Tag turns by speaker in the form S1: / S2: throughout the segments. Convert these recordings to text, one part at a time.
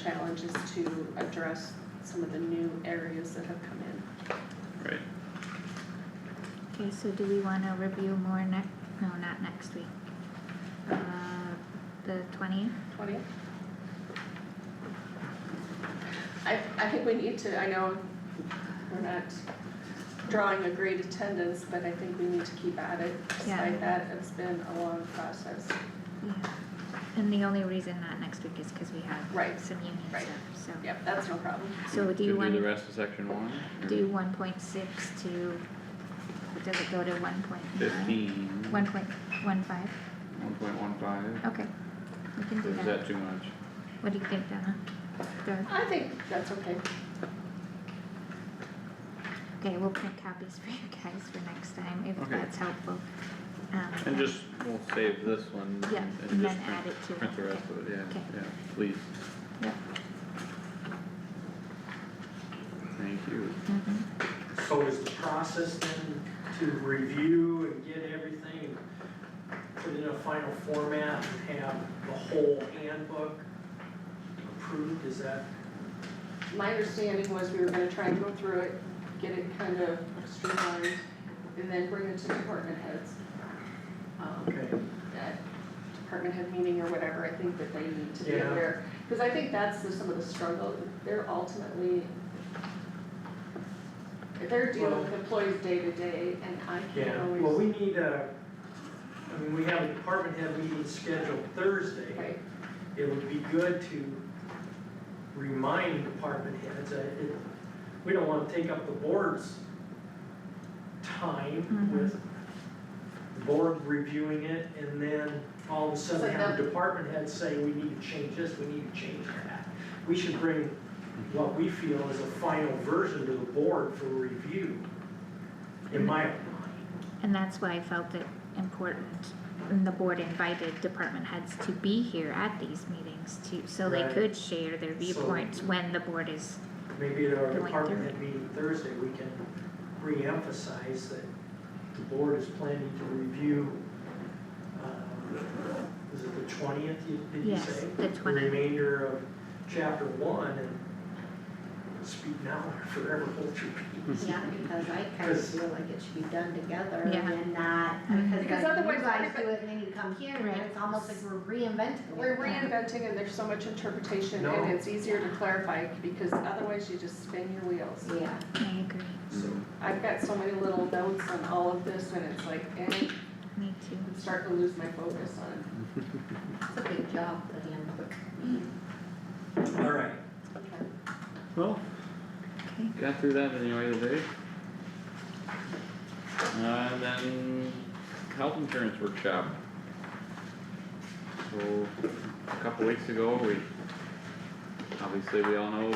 S1: challenge is to address some of the new areas that have come in.
S2: right?
S3: Okay, so do we wanna review more next, no, not next week? Uh, the twentieth?
S1: Twenty? I, I think we need to, I know we're not drawing a great attendance, but I think we need to keep at it.
S3: Yeah.
S1: Despite that, it's been a long process.
S3: Yeah. And the only reason not next week is cause we
S1: Right,
S3: have some union
S1: right.
S3: stuff, so.
S1: Yep, that's no problem.
S3: So do you
S2: To do the
S3: wanna
S2: rest of section one? or
S3: do one point six to, does it go to one point nine?
S2: Fifteen, one
S3: One point one five,
S2: point one five,
S3: Oh, okay, we can
S2: or
S3: do
S2: is
S3: that,
S2: that too much?
S3: what do you think, Donna? Good.
S1: I think that's okay.
S3: okay, we'll print copies for you guys for next time, if
S2: Okay.
S3: that's helpful. Um,
S2: And just, we'll save this one
S3: Yeah,
S2: and- and
S3: and
S2: just
S3: then add it to
S2: print, print
S3: it,
S2: the rest
S3: okay.
S2: of it, yeah,
S3: Okay.
S2: yeah, please,
S3: Yep,
S2: thank you.
S3: mhm.
S4: So is the process then to review and get everything, put it in a final format and have the whole handbook approved, is that?
S1: My understanding was we were gonna try and go through it, get it kind of streamlined, and then bring it to department heads. Um, at department head meeting or whatever, I think that they need to be
S4: Yeah.
S1: aware. Cause I think that's the, some of the struggle, they're ultimately, they're dealing with employees day to day and I can't
S4: Yeah,
S1: always.
S4: well, we need a, I mean, we have a department head meeting scheduled Thursday.
S1: Right,
S4: it would be good to remind department heads that it, we don't wanna take up the board's time
S3: Mhm.
S4: with the board reviewing it and then all of a
S1: So
S4: sudden have
S1: that-
S4: the department heads say, we need to change this, we need to change that. We should bring what we feel is a final version to the board for review, in my mind.
S3: And that's why I felt it important, and the board invited department heads to be here at these meetings to, so they
S4: Right.
S3: could share their
S4: So-
S3: viewpoints when the board is,
S4: Maybe at our
S3: Going
S4: department
S3: through
S4: head meeting Thursday, we can reemphasize that the board is planning to review, um, is it the twentieth, did you
S3: Yes,
S4: say?
S3: the 20th.
S4: remainder of chapter one and speak now or forever hold your peace.
S5: Yeah, because I kind of
S4: Because-
S5: feel like it should be done together
S3: Yeah.
S5: and not,
S3: Mhm.
S1: Because
S5: because like
S1: otherwise
S5: you guys
S1: everybody-
S5: do it and then you come here and
S3: Right.
S5: it's almost like we're reinventing it.
S1: we're reinventing and there's so much interpretation
S4: No.
S1: and it's easier to clarify because otherwise you just spin your wheels.
S5: Yeah,
S3: I agree,
S4: So,
S1: I've got so many little notes on all of this and it's like, eh,
S3: me too.
S1: I'm starting to lose my focus on it.
S5: it's a big job, the handbook.
S1: Mm.
S4: all right,
S2: Well,
S3: Okay,
S2: got through that anyway today. Uh, then health insurance workshop. So, a couple weeks ago, we, obviously we all know,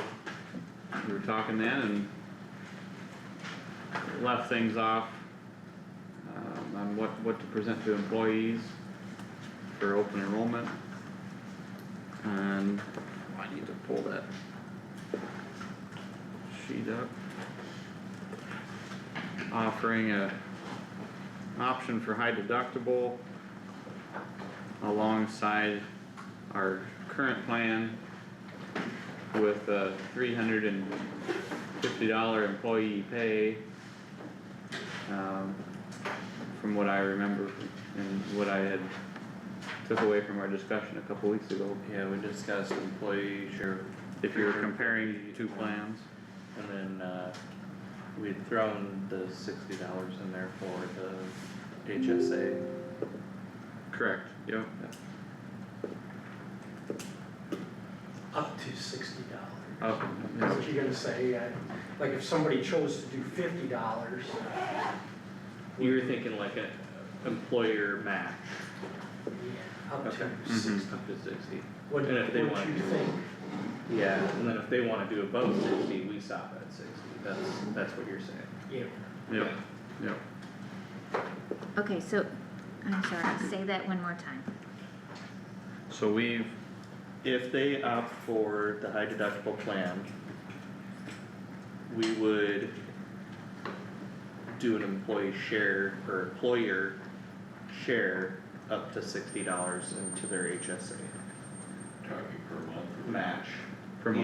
S2: we were talking then and left things off um, on what, what to present to employees for open enrollment. And I need to pull that sheet up. Offering a option for high deductible alongside our current plan with a three hundred and fifty dollar employee pay. Um, from what I remember and what I had took away from our discussion a couple weeks ago,
S6: Yeah, we discussed employee share,
S2: if you're comparing two plans.
S6: and then, uh, we'd thrown the sixty dollars in there for the HSA.
S2: Correct. Yep.
S4: up to sixty dollars.
S2: Up,
S4: That's what you're gonna say, uh, like if somebody chose to do fifty dollars,
S6: You were thinking like a employer match,
S4: up
S6: Okay.
S4: to
S2: Mhm.
S4: sixty.
S6: up to sixty.
S4: What,
S6: And
S4: what
S6: if they
S4: do
S6: want
S4: you
S6: to-
S4: think?
S6: Yeah. And then if they wanna do above sixty, we stop at sixty, that's, that's what you're saying.
S4: Yeah.
S2: Mm-hmm. yep, yep.
S3: okay, so, I'm sorry, say that one more time,
S2: So we've,
S6: If they opt for the high deductible plan, we would do an employee share or employer share up to sixty dollars into their HSA. Match
S2: from